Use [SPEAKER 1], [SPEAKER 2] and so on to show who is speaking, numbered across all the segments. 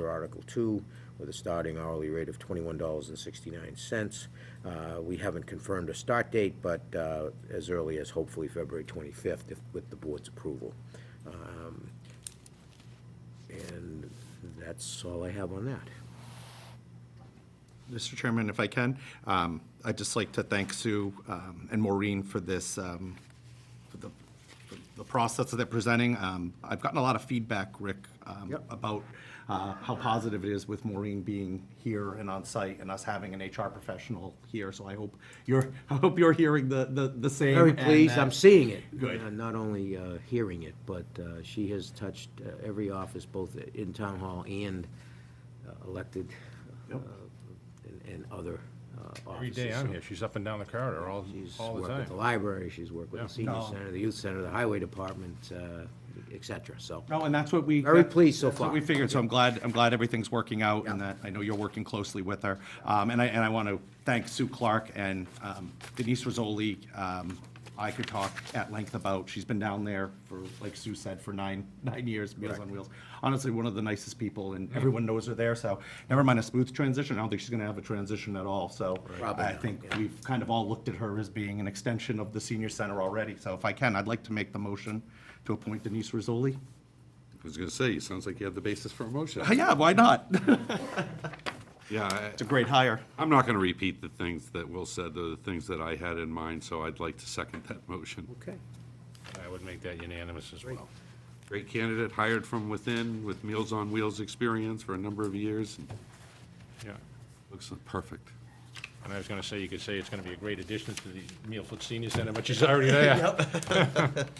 [SPEAKER 1] Article Two with a starting hourly rate of twenty-one dollars and sixty-nine cents. Uh, We haven't confirmed a start date, but uh, as early as hopefully February twenty-fifth, if, with the board's approval. Um, And that's all I have on that.
[SPEAKER 2] Mr. Chairman, if I can, um, I'd just like to thank Sue um, and Maureen for this, um, for the, for the process that they're presenting. Um, I've gotten a lot of feedback, Rick, um,
[SPEAKER 1] Yep.
[SPEAKER 2] about uh, how positive it is with Maureen being here and on site and us having an HR professional here. So I hope you're, I hope you're hearing the, the the same.
[SPEAKER 1] Very
[SPEAKER 2] and uh,
[SPEAKER 1] pleased, I'm
[SPEAKER 2] that-
[SPEAKER 1] seeing it.
[SPEAKER 2] Good.
[SPEAKER 1] Uh, Not only uh, hearing it, but uh, she has touched uh, every office, both in town hall and uh, elected uh,
[SPEAKER 2] Yep.
[SPEAKER 1] and- and other uh, offices.
[SPEAKER 3] Every day I'm here, she's up and down the corridor all,
[SPEAKER 1] She's
[SPEAKER 3] all the
[SPEAKER 1] worked
[SPEAKER 3] time.
[SPEAKER 1] with the library, she's worked with the senior
[SPEAKER 3] Yeah.
[SPEAKER 2] No.
[SPEAKER 1] center, the youth center, the highway department, uh, et cetera, so.
[SPEAKER 2] No, and that's what we.
[SPEAKER 1] Very pleased so
[SPEAKER 2] that's what
[SPEAKER 1] far.
[SPEAKER 2] we figured, so I'm glad, I'm glad everything's working out and that, I know you're working closely with her. Um, and I, and I want to thank Sue Clark and um, Denise Rosoli. Um, I could talk at length about, she's been down there for, like Sue said, for nine, nine years, Meals on Wheels. Honestly, one of the nicest people
[SPEAKER 1] Mm-hmm.
[SPEAKER 2] and everyone knows her there, so never mind a smooth transition. I don't think she's going to have a transition at all, so.
[SPEAKER 1] Probably
[SPEAKER 2] I
[SPEAKER 1] not,
[SPEAKER 2] think
[SPEAKER 1] yeah.
[SPEAKER 2] we've kind of all looked at her as being an extension of the senior center already. So if I can, I'd like to make the motion to appoint Denise Rosoli.
[SPEAKER 4] I was gonna say, it sounds like you have the basis for a motion.
[SPEAKER 2] Yeah, why not?
[SPEAKER 4] Yeah, I-
[SPEAKER 2] It's a great hire.
[SPEAKER 4] I'm not gonna repeat the things that Will said, the things that I had in mind, so I'd like to second that motion.
[SPEAKER 1] Okay.
[SPEAKER 3] I would make that unanimous as well.
[SPEAKER 4] Great candidate, hired from within, with Meals on Wheels experience for a number of years, and
[SPEAKER 3] Yeah.
[SPEAKER 4] looks perfect.
[SPEAKER 3] And I was gonna say, you could say it's gonna be a great addition to the Mealfoot Senior Center, but she's already there.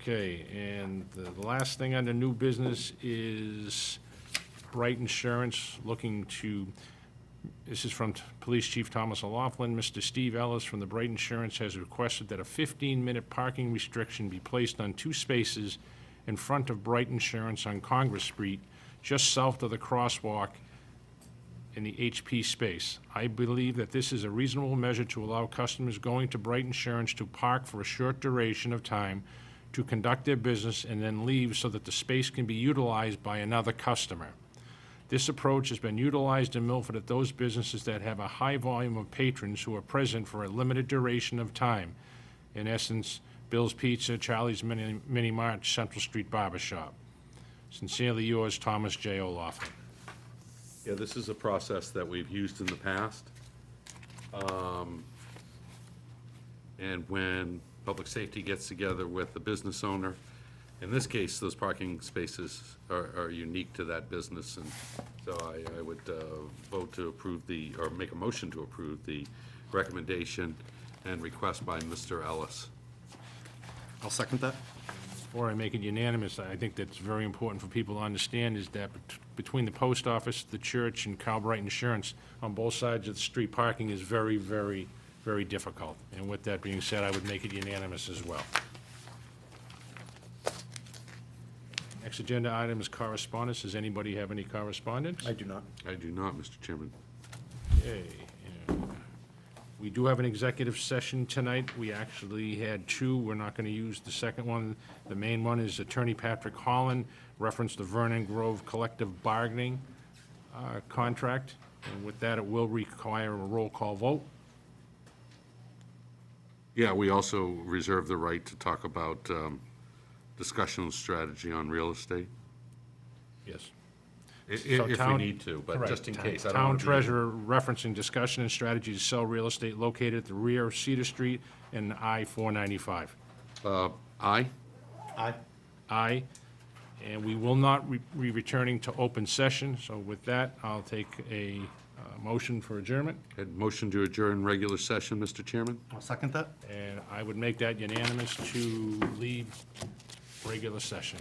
[SPEAKER 3] Okay, and the last thing under new business is Bright Insurance looking to, this is from Police Chief Thomas O'Laughlin. Mr. Steve Ellis from the Bright Insurance has requested that a 15-minute parking restriction be placed on two spaces in front of Bright Insurance on Congress Street, just south of the crosswalk in the HP space. I believe that this is a reasonable measure to allow customers going to Bright Insurance to park for a short duration of time to conduct their business and then leave so that the space can be utilized by another customer. This approach has been utilized in Milford at those businesses that have a high volume of patrons who are present for a limited duration of time. In essence, Bill's Pizza, Charlie's Mini Mini Mart, Central Street Barber Shop. Sincerely yours, Thomas J. O'Laughlin.
[SPEAKER 4] Yeah, this is a process that we've used in the past. Um, And when public safety gets together with the business owner, in this case, those parking spaces are, are unique to that business. And so I, I would uh, vote to approve the, or make a motion to approve the recommendation and request by Mr. Ellis.
[SPEAKER 2] I'll second that.
[SPEAKER 3] Or I make it unanimous, I think that's very important for people to understand, is that bet- between the post office, the church, and Calbright Insurance, on both sides of the street, parking is very, very, very difficult. And with that being said, I would make it unanimous as well. Next agenda item is correspondence. Does anybody have any correspondence?
[SPEAKER 2] do not.
[SPEAKER 4] I do not, Mr. Chairman.
[SPEAKER 3] Okay, and We do have an executive session tonight. We actually had two. We're not going to use the second one. The main one is Attorney Patrick Holland referenced the Vernon Grove collective bargaining uh, contract. And with that, it will require a roll call vote.
[SPEAKER 4] Yeah, we also reserve the right to talk about um, discussion of strategy on real estate.
[SPEAKER 3] Yes.
[SPEAKER 4] I- i-
[SPEAKER 3] So
[SPEAKER 4] If we
[SPEAKER 3] town-
[SPEAKER 4] need to, but just in
[SPEAKER 3] Correct.
[SPEAKER 4] case. I don't
[SPEAKER 3] Town
[SPEAKER 4] wanna be-
[SPEAKER 3] treasurer referencing discussion and strategy to sell real estate located at the rear of Cedar Street and I-495.
[SPEAKER 4] Uh, Aye,
[SPEAKER 2] Aye.
[SPEAKER 3] Aye. And we will not re- be returning to open session, so with that, I'll take a uh, motion for adjournment,
[SPEAKER 4] Had motion to adjourn regular session, Mr. Chairman?
[SPEAKER 2] I'll second that.
[SPEAKER 3] and I would make that unanimous to leave regular session.